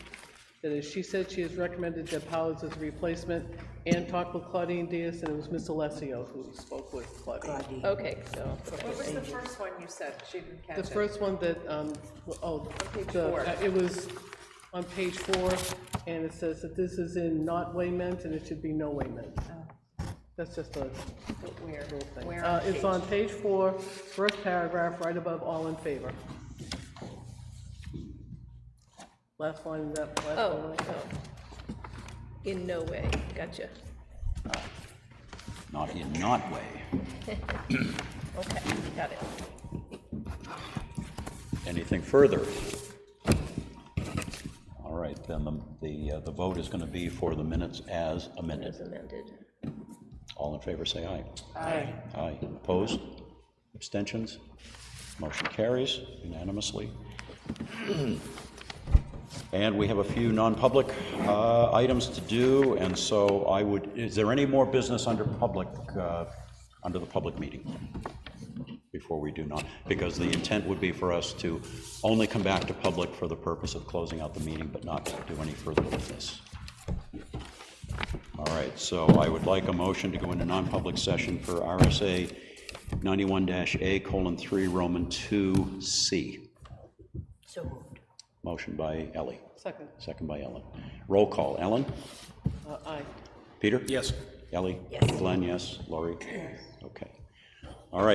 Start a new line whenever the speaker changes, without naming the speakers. That is, she said she has recommended Deb Howells as a replacement and talked with Claudine Diaz, and it was Miss Alessio who spoke with Claudine.
Okay,
So,
What was the first one you said? She didn't catch
the
it.
first one that, um, oh,
page
the-
four.
uh, it was on page four, and it says that this is in not way meant, and it should be no way meant. That's just a
Where,
little thing.
Oh. where
Uh,
on
It's
page?
on page four, first paragraph, right above all in favor. Last line, of that, last
Oh,
line. of that.
in no way, gotcha,
not in not way.
okay, got it.
Anything further? All right, then the, the, uh, the vote is going to be for the minutes as amended.
As amended.
All in favor, say aye. Aye. Aye. Opposed? Abstentions? Motion carries unanimously. And we have a few non-public uh, items to do, and so I would, is there any more business under public, uh, under the public meeting? Before we do not, because the intent would be for us to only come back to public for the purpose of closing out the meeting, but not do any further business. All right, so I would like a motion to go into non-public session for RSA 91-A colon 3 Roman 2C.
So moved.
Motion by Ellie,
Second,
second by Ellen. Roll call, Ellen?
Uh, aye.
Peter?
Yes.
Ellie?
Yes.
Glenn, yes. Lori? Okay.